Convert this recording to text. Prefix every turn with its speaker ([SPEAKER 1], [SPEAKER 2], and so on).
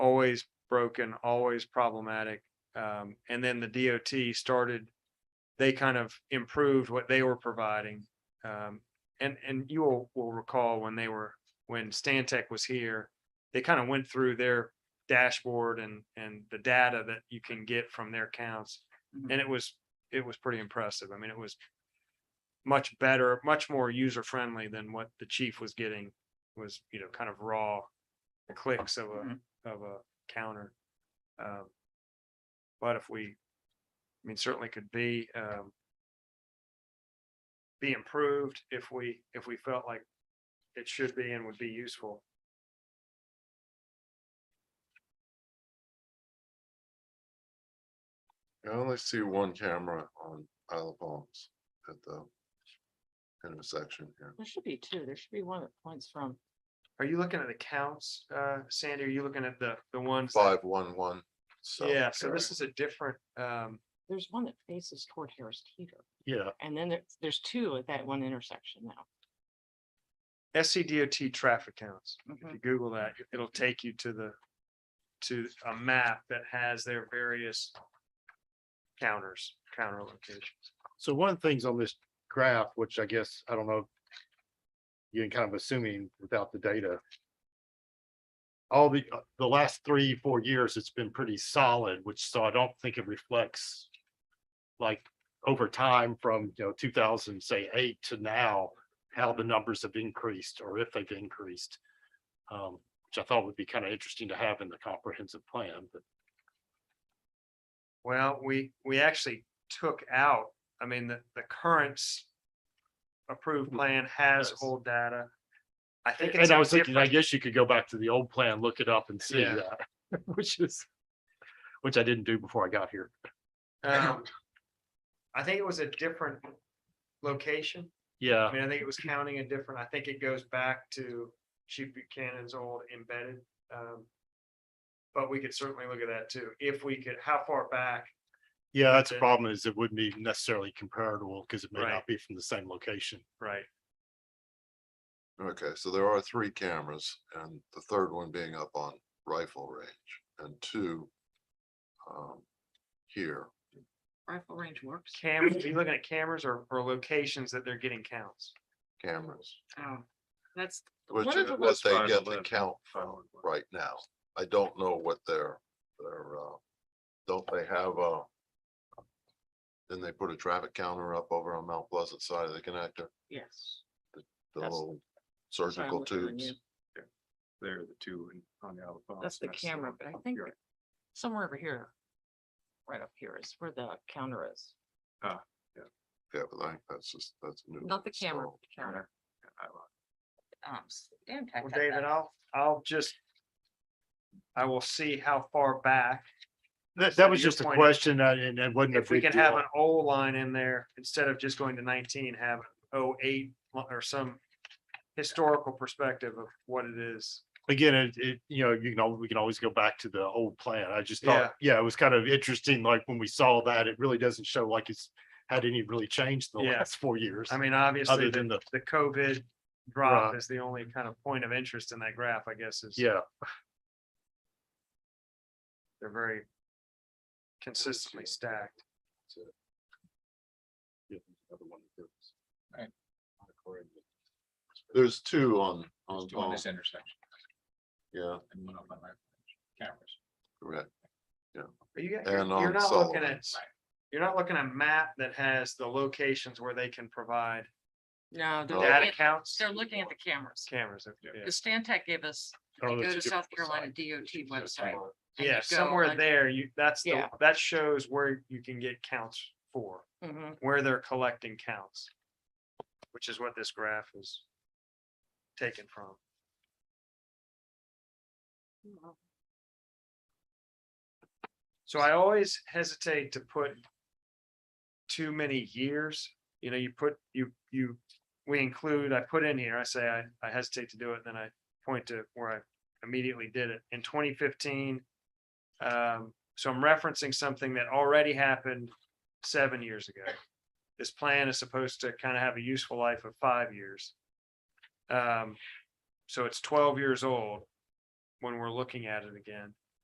[SPEAKER 1] always broken, always problematic. Um, and then the DOT started, they kind of improved what they were providing. Um, and, and you will, will recall when they were, when Stantec was here, they kind of went through their dashboard and, and the data that you can get from their counts.
[SPEAKER 2] Mm-hmm.
[SPEAKER 1] And it was, it was pretty impressive. I mean, it was much better, much more user friendly than what the chief was getting was, you know, kind of raw clicks of
[SPEAKER 2] Mhm.
[SPEAKER 1] a, of a counter. Um, But if we, I mean, certainly could be, um, be improved if we, if we felt like it should be and would be useful.
[SPEAKER 3] I only see one camera on Isle of Palms at the intersection here.
[SPEAKER 2] There should be two. There should be one that points from.
[SPEAKER 1] Are you looking at the counts, uh, Sandy? Are you looking at the, the ones? that-
[SPEAKER 3] Five one one.
[SPEAKER 1] Yeah, so this is a different, um,
[SPEAKER 2] There's one that faces toward Harris Teeter.
[SPEAKER 3] Yeah.
[SPEAKER 2] And then there, there's two at that one intersection now.
[SPEAKER 1] SCDOT traffic counts. If
[SPEAKER 2] Mhm.
[SPEAKER 1] you Google that, it'll take you to the, to a map that has their various counters, counter locations.
[SPEAKER 4] So one of the things on this graph, which I guess, I don't know, you're kind of assuming without the data. All the, uh, the last three, four years, it's been pretty solid, which so I don't think it reflects like over time from, you know, two thousand, say eight to now, how the numbers have increased or if they've increased. Um, which I thought would be kind of interesting to have in the comprehensive plan, but
[SPEAKER 1] Well, we, we actually took out, I mean, the, the current s- approved plan has
[SPEAKER 4] Yes.
[SPEAKER 1] old data. I think it's
[SPEAKER 4] Mm, And I
[SPEAKER 1] a
[SPEAKER 4] was thinking, I
[SPEAKER 1] different,
[SPEAKER 4] guess you could go back to the old plan, look it up and see
[SPEAKER 1] Yeah.
[SPEAKER 4] that, which is, which I didn't do before I got here.
[SPEAKER 1] um, I think it was a different location. I
[SPEAKER 4] Yeah,
[SPEAKER 1] mean, I think it was counting a different, I think it goes back to Chief Buchanan's old embedded. um, But we could certainly look at that too, if we could, how far back,
[SPEAKER 4] yeah, that's the
[SPEAKER 1] Okay.
[SPEAKER 4] problem is it wouldn't be necessarily comparable because it may
[SPEAKER 1] Right.
[SPEAKER 4] not be from the same location.
[SPEAKER 1] right?
[SPEAKER 3] Okay, so there are three cameras and the third one being up on rifle range and two um, here.
[SPEAKER 2] Rifle range works.
[SPEAKER 1] Cameras, are you looking at cameras or, or locations that they're getting counts?
[SPEAKER 3] cameras,
[SPEAKER 2] Oh, That's.
[SPEAKER 3] which
[SPEAKER 2] one of
[SPEAKER 3] is
[SPEAKER 2] the
[SPEAKER 3] what
[SPEAKER 2] ones-
[SPEAKER 3] they get the count from right now. I don't know what their, their, uh, don't they have a then they put a traffic counter up over on Mount Pleasant side of the connector,
[SPEAKER 2] Yes.
[SPEAKER 3] the
[SPEAKER 2] That's-
[SPEAKER 3] little
[SPEAKER 2] that's what I'm
[SPEAKER 3] surgical
[SPEAKER 2] looking on
[SPEAKER 3] tubes.
[SPEAKER 2] you. That's the camera, but I think somewhere over here. Right up here is where the counter is.
[SPEAKER 3] Yeah, but I think that's just, that's new.
[SPEAKER 2] Not the camera,
[SPEAKER 3] installed.
[SPEAKER 2] but the counter. Um, Stantec
[SPEAKER 1] Well,
[SPEAKER 2] had
[SPEAKER 1] David,
[SPEAKER 2] that.
[SPEAKER 1] I'll, I'll just, I will see how far back,
[SPEAKER 4] That,
[SPEAKER 1] So
[SPEAKER 4] that was
[SPEAKER 1] your
[SPEAKER 4] just a
[SPEAKER 1] point is,
[SPEAKER 4] question uh, and it wasn't a
[SPEAKER 1] if we
[SPEAKER 4] big
[SPEAKER 1] can have
[SPEAKER 4] deal.
[SPEAKER 1] an O line in there, instead of just going to nineteen, have 08 or some historical perspective of what it is.
[SPEAKER 4] Again, it, it, you know, you can, al- we can always go back to the old plan. I just
[SPEAKER 1] Yeah.
[SPEAKER 4] thought, yeah, it was kind of interesting, like when we saw that, it really doesn't show like it's had any really changed in the
[SPEAKER 1] Yeah.
[SPEAKER 4] last four years.
[SPEAKER 1] I mean, obviously, the
[SPEAKER 4] Other than the,
[SPEAKER 1] the COVID drop
[SPEAKER 4] Right.
[SPEAKER 1] is the only kind of point of interest in that graph, I guess, is
[SPEAKER 4] yeah,
[SPEAKER 1] they're very consistently stacked.
[SPEAKER 3] There's two on, on,
[SPEAKER 5] There's two on
[SPEAKER 3] Palm.
[SPEAKER 5] this intersection
[SPEAKER 3] yeah,
[SPEAKER 5] and one up on my cameras.
[SPEAKER 3] correct.
[SPEAKER 1] But you,
[SPEAKER 3] And
[SPEAKER 1] you're- you're
[SPEAKER 3] on
[SPEAKER 1] not looking
[SPEAKER 3] Sullivan.
[SPEAKER 1] at, you're not looking at a map that has the locations where they can provide
[SPEAKER 2] No, they're
[SPEAKER 3] No.
[SPEAKER 2] looking
[SPEAKER 1] data
[SPEAKER 2] at-
[SPEAKER 1] counts.
[SPEAKER 2] they're looking at the cameras.
[SPEAKER 1] Cameras. if-
[SPEAKER 5] Yeah.
[SPEAKER 1] yeah.
[SPEAKER 2] The Stantec gave us,
[SPEAKER 4] I don't
[SPEAKER 2] go
[SPEAKER 4] know, it's
[SPEAKER 2] to
[SPEAKER 4] Oh, a different
[SPEAKER 2] South Carolina
[SPEAKER 4] site.
[SPEAKER 2] DOT
[SPEAKER 5] Just
[SPEAKER 2] website.
[SPEAKER 5] like-
[SPEAKER 2] and you
[SPEAKER 1] Yeah,
[SPEAKER 2] go
[SPEAKER 1] somewhere
[SPEAKER 2] un-
[SPEAKER 1] there, you, that's, the
[SPEAKER 2] Yeah.
[SPEAKER 1] that shows where you can get counts for,
[SPEAKER 2] Mhm.
[SPEAKER 1] where they're collecting counts. Which is what this graph is taken from. So I always hesitate to put too many years, you know, you put, you, you, we include, I put in here, I say, I, I hesitate to do it, then I point to where I immediately did it in twenty fifteen. Um, so I'm referencing something that already happened seven years ago. This plan is supposed to kind of have a useful life of five years. Um, so it's twelve years old when we're looking at it again.